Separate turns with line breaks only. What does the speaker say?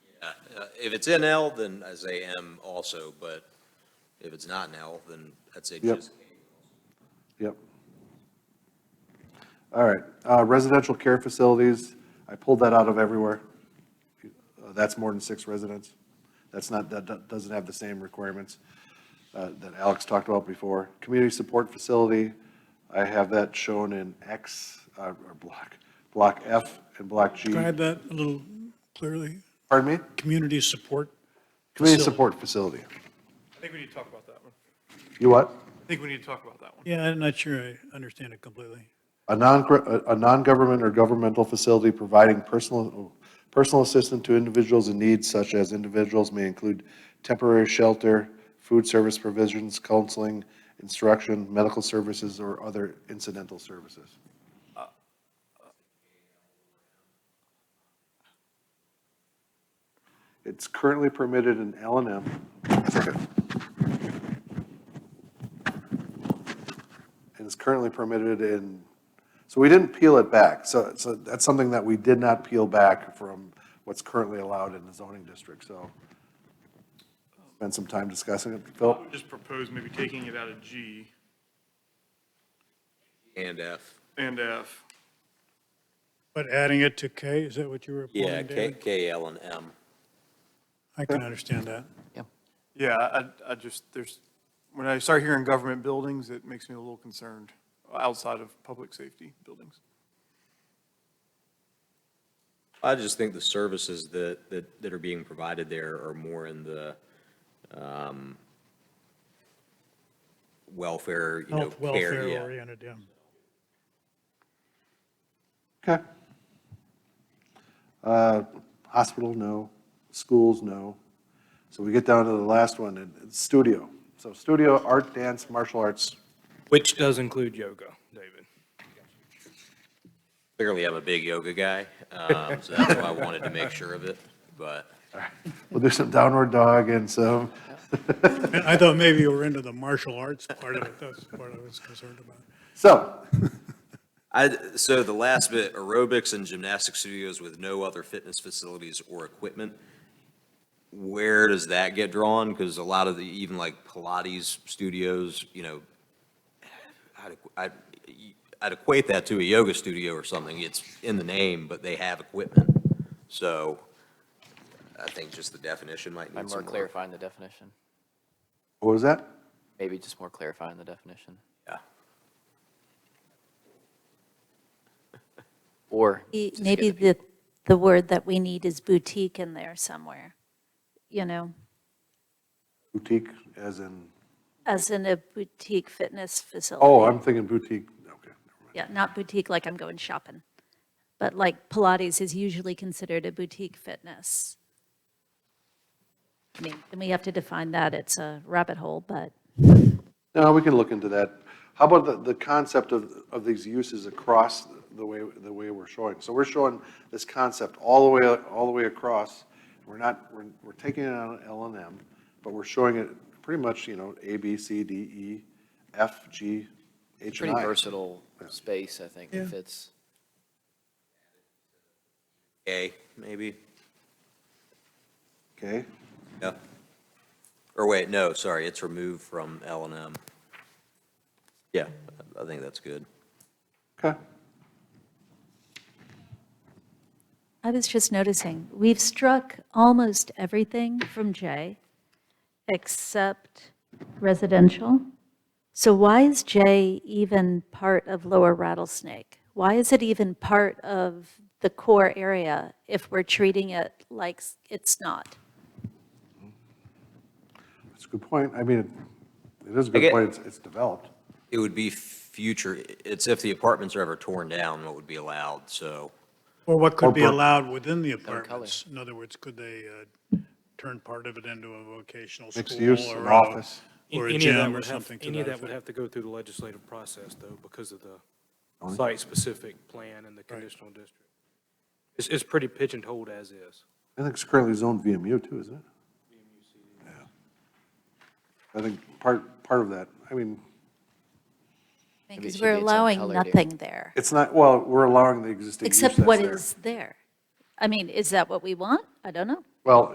Uh, If it's in L, then I say M also, but if it's not in L, then I'd say
Yep.
just.
Yep. All right, uh, residential care facilities, I pulled that out of everywhere. Uh, That's more than six residents. That's not, that do- doesn't have the same requirements uh, that Alex talked about before. Community support facility, I have that shown in X, uh, or block, block F and block G.
Describe that a little clearly.
Pardon me?
Community support.
Community
Facility.
support facility.
I think we need to talk about that one.
You what?
I think we need to talk about that one.
Yeah, I'm not sure I understand it completely.
A non, a- a non-government or governmental facility providing personal, personal assistance to individuals in need such as individuals may include temporary shelter, food service provisions, counseling, instruction, medical services, or other incidental services. It's currently permitted in L and M. And it's currently permitted in so we didn't peel it back. So, so that's something that we did not peel back from what's currently allowed in the zoning district, so. Spend some time discussing it.
I
Phil,
would just propose maybe taking it out of G
And F.
and F.
But adding it to K, is that what you were
Yeah,
pointing,
K,
David?
K, L, and M.
I can understand that.
Yeah, I, I just, there's, when I start hearing government buildings, it makes me a little concerned outside of public safety buildings.
I just think the services that, that, that are being provided there are more in the, um, welfare, you know,
Health,
care,
welfare
yeah.
oriented, yeah.
okay. Uh, Hospital, no. Schools, no. So we get down to the last one, and it's studio. So studio, art, dance, martial arts.
Which does include yoga, David.
Clearly, I'm a big yoga guy, um, so that's why I wanted to make sure of it, but.
We'll do some downward dog and some,
And I thought maybe you were into the martial arts part of it. That's the part I was concerned about.
so,
I, so the last bit, aerobics and gymnastic studios with no other fitness facilities or equipment, where does that get drawn? Because a lot of the, even like Pilates studios, you know, I'd, I'd, I'd equate that to a yoga studio or something. It's in the name, but they have equipment. So I think just the definition might
By
need
more
some more.
clarifying the definition,
what was that?
maybe just more clarifying the definition,
Yeah.
or
Maybe-
just get
Maybe
the
the, the word that we need is boutique in there somewhere, you know,
Boutique, as in,
as in a boutique fitness facility.
oh, I'm thinking boutique, okay.
Yeah, not boutique like I'm going shopping, but like Pilates is usually considered a boutique fitness. I mean, and we have to define that, it's a rabbit hole, but
No, we can look into that. How about the, the concept of, of these uses across the way, the way we're showing? So we're showing this concept all the way, all the way across. We're not, we're, we're taking it on L and M, but we're showing it pretty much, you know, A, B, C, D, E, F, G,
It's
H,
pretty
and I.
versatile space, I think, it fits.
A, maybe?
Okay,
Yeah. Or wait, no, sorry, it's removed from L and M. Yeah, I think that's good.
okay.
I was just noticing, we've struck almost everything from J except residential. So why is J even part of Lower Rattlesnake? Why is it even part of the core area if we're treating it like s- it's not?
That's a good point. I mean, it- it is a
I get-
good point. It's, it's developed.
It would be future, it's if the apartments are ever torn down, what would be allowed, so.
Or what could be
Corporate.
allowed within the
color.
apartments? In other words, could they uh, turn part of it into a vocational school?
Mixed use,
or
an
a-
office.
Or a
Any of that
gym or
would have-
something to
Any of
that
that would
effect.
have to go through the legislative process, though, because of the site-specific plan and the conditional district. It's, it's pretty pigeonholed as is.
I think it's currently zoned VMU too, isn't it? Yeah. I think part, part of that, I mean,
Maybe it
Because
should
we're
be its own
allowing
color, dear.
nothing there,
it's not, well, we're allowing the existing use
except
that's
what
there.
is there. I mean, is that what we want? I don't know.
Well,